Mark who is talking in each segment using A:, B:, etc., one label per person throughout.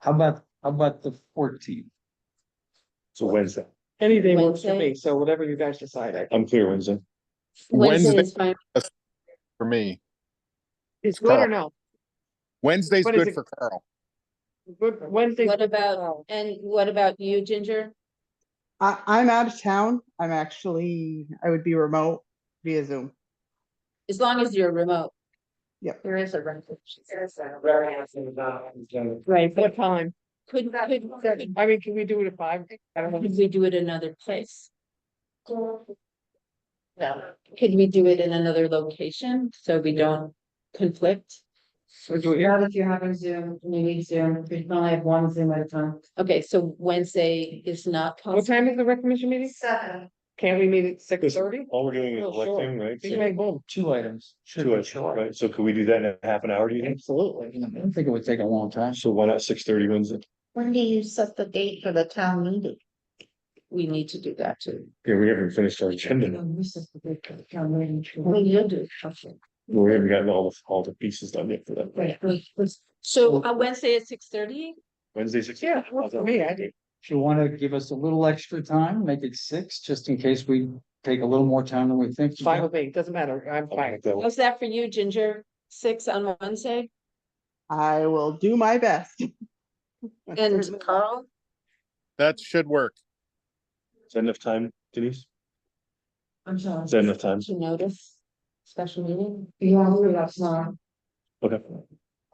A: How about, how about the fourteenth?
B: So Wednesday,
C: Any day works for
D: Wednesday.
C: me, so whatever you guys decide, I
B: I'm clear Wednesday.
D: Wednesday
E: Wednesday
D: is fine.
E: for me.
C: It's good or no?
E: Wednesday's
C: What is
E: good
C: it?
E: for Carl.
C: Good, Wednesday.
D: What about, and what about you, Ginger?
F: I, I'm out of town. I'm actually, I would be remote via Zoom.
D: As long as you're remote.
F: Yep.
D: There is a rental.
C: Right. What time?
D: Could, could, could
C: I mean, can we do it at five? I don't know.
D: could we do it another place? No. Could we do it in another location so we don't conflict?
C: Or do it here?
D: if you're having Zoom, you need Zoom, we only have one Zoom at a time. Okay, so Wednesday is not
C: What
D: possible.
C: time is the rec commission meeting?
D: Seven.
C: Can't we meet at six thirty?
B: All we're doing is
C: Oh, sure.
B: electing, right?
C: Big bang boom.
A: Two items. should
B: Two
A: be
B: hours,
A: short.
B: right? So could we do that in a half an hour, do you think?
A: Absolutely. I don't think it would take a long time.
B: So why not six thirty Wednesday?
D: When do you set the date for the town meeting? We need to do that too.
B: Yeah, we haven't finished our agenda.
D: Well, you'll do it, okay.
B: We haven't gotten all the, all the pieces done yet for that.
D: Right, we- we- So uh, Wednesday at six thirty?
B: Wednesday, six.
C: Yeah, works for me, I do.
A: If you wanna give us a little extra time, make it six, just in case we take a little more time than we think.
C: It's fine with me, doesn't matter, I'm fine.
B: That
D: How's that for you, Ginger? Six on Wednesday?
F: I will do my best. I
D: And
F: certainly will.
D: Carl?
E: That should work.
B: enough time, Denise?
D: I'm sorry.
B: Is that enough time?
D: To notice special meeting? Yeah, we'll have some.
B: Okay.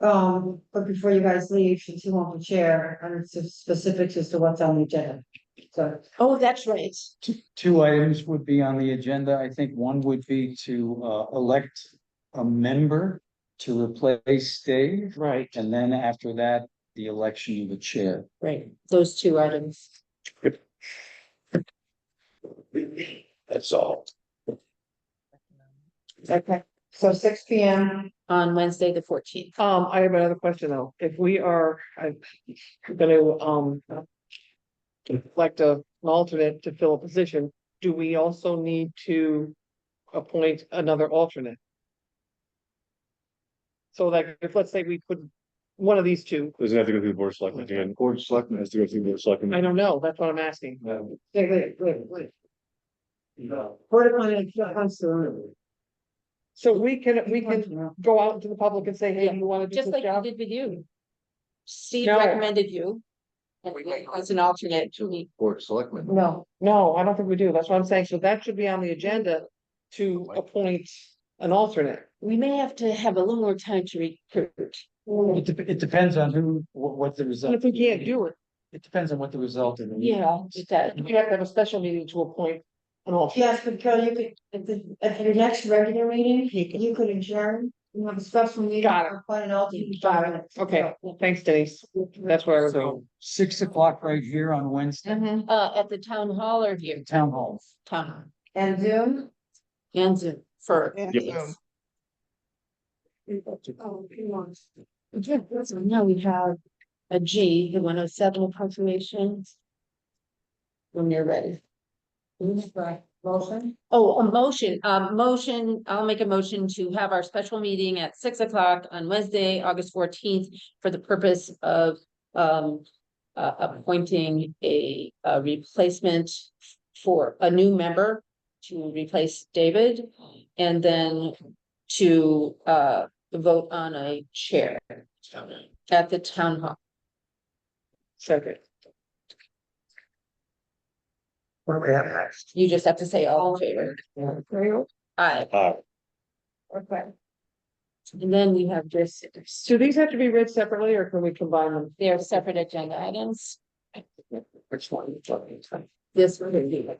G: Um, but before you guys leave, since you want the chair, and it's just specifics as to what's on the agenda. So,
D: Oh, that's right.
A: Two, two items would be on the agenda. I think one would be to, uh, elect a member to replace Dave.
C: Right.
A: And then after that, the election of the chair.
D: Right, those two items.
B: That's all.
G: okay, so six P M,
D: On Wednesday, the fourteenth.
C: Um, I have another question though, if we are, I'm gonna, um. Like a, an alternate to fill a position, do we also need to appoint another alternate? So like, if let's say we put one of these two,
B: Doesn't have to go through the board of selectmen again. Board of selectmen has to go through the board
C: I
B: of selectmen.
C: don't know, that's what I'm asking.
B: No.
G: wait, wait, wait, wait. What am I, I'm sorry.
C: So we can, we can go out into the public and say, hey, you wanna do
D: Just
C: this
D: like
C: job?
D: we did with you. Steve
C: No.
D: recommended you. And you was an alternate to me.
A: Board selectmen.
G: No,
C: No, I don't think we do, that's what I'm saying, so that should be on the agenda to appoint an alternate.
D: We may have to have a little more time to recruit.
G: Mm.
A: It dep- it depends on who, what, what the result.
C: And if we can't do it,
A: It depends on what the result of the.
D: Yeah, it does.
C: We have to have a special meeting to appoint an alternate.
G: yes, but Carol, you could, at the, at your next regular meeting, you could adjourn, you have a special meeting.
C: Got it.
G: or Appoint an alternate.
C: Got Okay, thanks Denise, that's where I was going.
A: So six o'clock right here on Wednesday,
G: Mhm.
D: Uh, at the town hall or here,
A: town hall.
D: town, hall.
G: And Zoom?
D: and Zoom for.
F: Yeah.
B: Yep.
G: Oh, two months.
D: Yeah, so now we have a G, the one oh seven appropriations. When you're ready.
G: Right, motion?
D: Oh, a motion, a motion, I'll make a motion to have our special meeting at six o'clock on Wednesday, August fourteenth. For the purpose of um uh appointing a a replacement for a new member. To replace David and then to uh vote on a chair at the town hall.
C: Second.
G: What we have next?
D: You just have to say all in favor. Aye.
B: Aye.
G: Okay.
D: And then we have just,
C: Do these have to be read separately or can we combine them?
D: they are separate agenda items.
C: Which one?
D: This we're gonna do.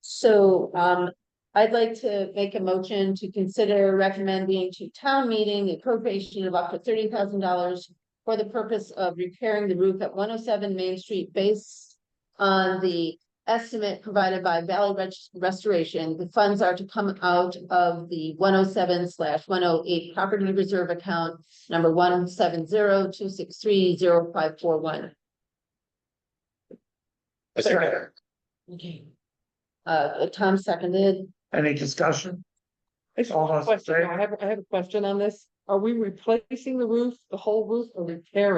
D: So um, I'd like to make a motion to consider recommending to town meeting the appropriation of up to thirty thousand dollars. For the purpose of repairing the roof at one oh seven Main Street based on the estimate provided by Valley Res- Restoration. The funds are to come out of the one oh seven slash one oh eight property reserve account. Number one seven zero two six three zero five four one.
B: I second that.
D: Okay. Uh, Tom seconded,
G: Any discussion?
C: I just
G: All those
C: have a
G: in
C: question,
G: favor?
C: I have, I have a question on this, are we replacing the roof, the whole roof or repairing?